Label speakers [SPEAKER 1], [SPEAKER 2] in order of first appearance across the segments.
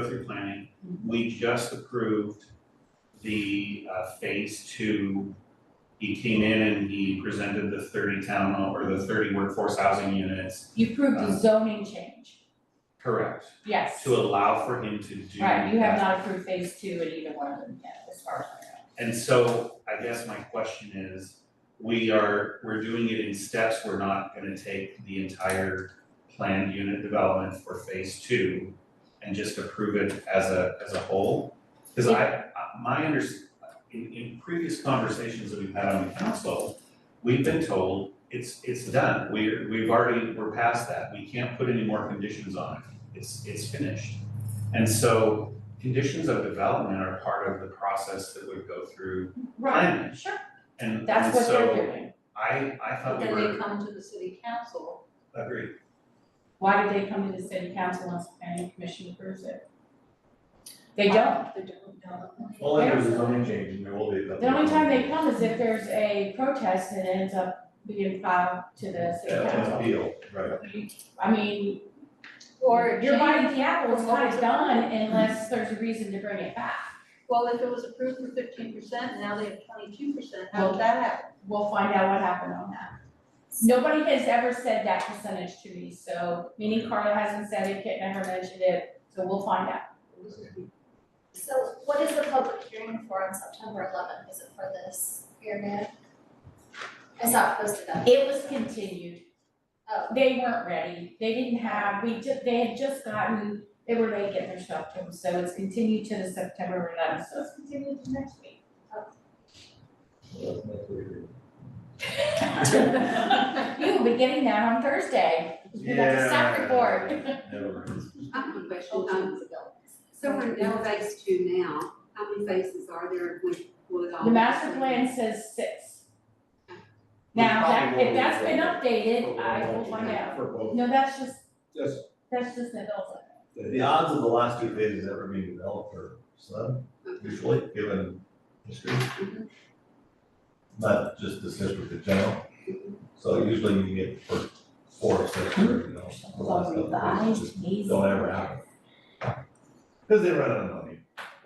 [SPEAKER 1] go through planning, we just approved the uh phase two. He came in and he presented the thirty town or the thirty workforce housing units,
[SPEAKER 2] You approved
[SPEAKER 1] Um,
[SPEAKER 2] a zoning change,
[SPEAKER 1] correct,
[SPEAKER 2] yes.
[SPEAKER 1] to allow for him to do
[SPEAKER 2] Right, you
[SPEAKER 1] that.
[SPEAKER 2] have not approved phase two in either one of them yet, as far as I know.
[SPEAKER 1] And so I guess my question is, we are, we're doing it in steps, we're not gonna take the entire planned unit development for phase two and just approve it as a, as a whole? Cause I, I- my under, in, in previous conversations that we've had on the council, we've been told it's, it's done, we're, we've already, we're past that, we can't put any more conditions on it, it's, it's finished. And so conditions of development are part of the process that would go through planning.
[SPEAKER 2] Sure,
[SPEAKER 1] And and
[SPEAKER 2] that's what they're
[SPEAKER 1] so
[SPEAKER 2] doing.
[SPEAKER 1] I I
[SPEAKER 3] But
[SPEAKER 1] thought we
[SPEAKER 3] then they
[SPEAKER 1] were,
[SPEAKER 3] come to the city council,
[SPEAKER 1] agreed,
[SPEAKER 2] Why did they come to the city council once the planning commission approves it? They don't.
[SPEAKER 3] they don't know.
[SPEAKER 4] Only there was a zoning change and there will be.
[SPEAKER 2] The only time they come is if there's a protest and it ends up being filed to the city
[SPEAKER 4] Yeah,
[SPEAKER 2] council.
[SPEAKER 4] appeal, right.
[SPEAKER 2] I mean,
[SPEAKER 3] Or
[SPEAKER 2] you're
[SPEAKER 3] change-
[SPEAKER 2] biting the apple, it's
[SPEAKER 3] Or
[SPEAKER 2] kind of
[SPEAKER 3] change.
[SPEAKER 2] done unless there's a reason to bring it back.
[SPEAKER 3] well, if it was approved for fifteen percent, now they have twenty-two percent, how did that happen?
[SPEAKER 2] We'll find out what happened on that. Nobody has ever said that percentage to me, so, meaning Carla hasn't said it, Kit never mentioned it, so we'll find out.
[SPEAKER 5] So what is the public hearing for on September eleventh? Is it for this pyramid? I saw it posted up.
[SPEAKER 2] It was continued.
[SPEAKER 5] Oh.
[SPEAKER 2] They weren't ready, they didn't have, we ju- they had just gotten, they were late getting their stuff to them, so it's continued to the September eleventh, so it's continued to next week. You will be getting that on Thursday, you got the staff report.
[SPEAKER 4] Never mind.
[SPEAKER 6] I have a
[SPEAKER 5] Oh,
[SPEAKER 6] question, um,
[SPEAKER 5] Children's development.
[SPEAKER 6] so we're in phase two now, how many phases are there with, with all?
[SPEAKER 2] The
[SPEAKER 6] this?
[SPEAKER 2] master plan says six. Now, that, if that's been updated, I will find out.
[SPEAKER 7] For both,
[SPEAKER 2] No, that's just,
[SPEAKER 7] yes,
[SPEAKER 2] that's just an adult.
[SPEAKER 4] The odds of the last two phases ever being developed are slim, usually, given history. Not just this district in general. So usually you get for four, or six, or, you know, the last couple of phases just don't ever happen. Cause they run out of money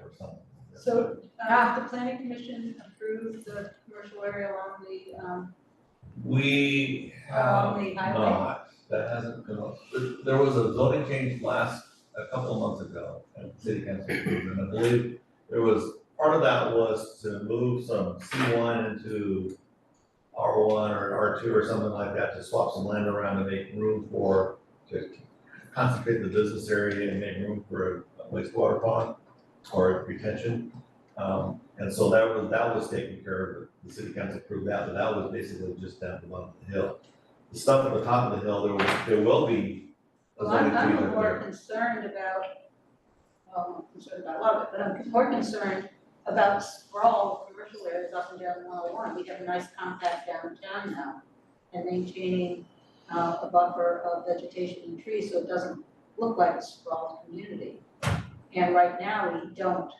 [SPEAKER 4] or something.
[SPEAKER 3] So, uh, the planning commission approved the commercial area along the, um,
[SPEAKER 4] We have
[SPEAKER 3] along the highway.
[SPEAKER 4] not, that hasn't been, up- there- there was a zoning change last, a couple of months ago, and city council approved, and I believe there was, part of that was to move some C one into R one or R two or something like that, to swap some land around and make room for, to concentrate the business area and make room for a wastewater pond or retention. Um, and so that was, that was taken care of, the city council approved that, but that was basically just down the bottom of the hill the stuff at the top of the hill, there will, there will be. a
[SPEAKER 3] Well, I'm,
[SPEAKER 4] zoning change
[SPEAKER 3] I'm
[SPEAKER 4] up
[SPEAKER 3] more
[SPEAKER 4] there.
[SPEAKER 3] concerned about, well, I'm concerned about a lot of it, but I'm more concerned about sprawl of commercial areas up and down one oh one. We have a nice compact downtown now and maintaining uh a buffer of vegetation and trees, so it doesn't look like a sprawled community. And right now, we don't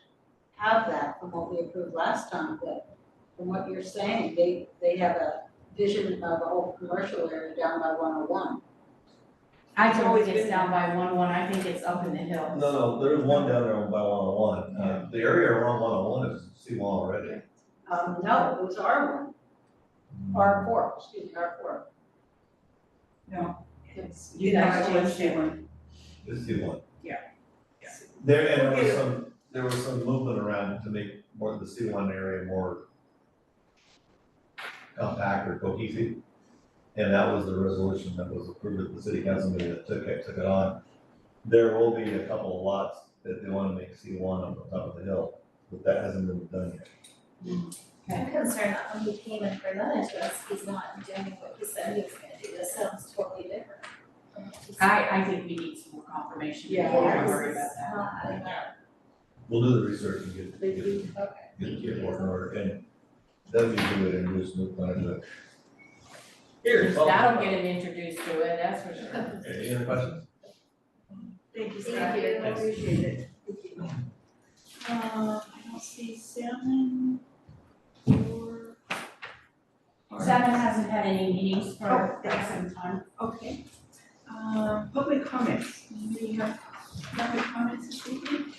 [SPEAKER 3] have that from what we approved last time, but from what you're saying, they they have a vision of a whole commercial area down by one oh one.
[SPEAKER 2] I don't think it's down by one one, I think it's up in the hill.
[SPEAKER 4] No, no, there's one down there by one oh one, uh, the area around one oh one is C one already.
[SPEAKER 3] Um, no, it was R one. R four, excuse me, R four.
[SPEAKER 2] It's, you guys changed it.
[SPEAKER 4] It's C one.
[SPEAKER 2] Yeah.
[SPEAKER 3] Yeah.
[SPEAKER 4] There, and there was some, there was some movement around to make more of the C one area more compact or cohesive. And that was the resolution that was approved at the city council meeting that took it, took it on. There will be a couple of lots that they wanna make C one on the top of the hill, but that hasn't been done yet.
[SPEAKER 5] I'm concerned that when he came and presented to us, he's not doing what he said he was gonna do. This sounds totally different. from what he said.
[SPEAKER 2] I, I think we need some more confirmation
[SPEAKER 3] Yeah.
[SPEAKER 2] before we worry about
[SPEAKER 5] It's
[SPEAKER 2] that.
[SPEAKER 5] not-
[SPEAKER 4] We'll do the research and get,
[SPEAKER 3] They
[SPEAKER 4] get,
[SPEAKER 3] do,
[SPEAKER 5] okay.
[SPEAKER 4] get the board in order, and then we do it and just move on to. Here.
[SPEAKER 2] That'll get him introduced to it, that's for sure.
[SPEAKER 4] Any other questions?
[SPEAKER 3] Thank you,
[SPEAKER 5] Thank
[SPEAKER 3] Scott.
[SPEAKER 5] you.
[SPEAKER 3] I appreciate it. Uh, I don't see salmon or.
[SPEAKER 2] Seven hasn't had any meetings for
[SPEAKER 6] Oh,
[SPEAKER 2] quite some time.
[SPEAKER 6] Okay, uh, public comments, we have Other comments this evening?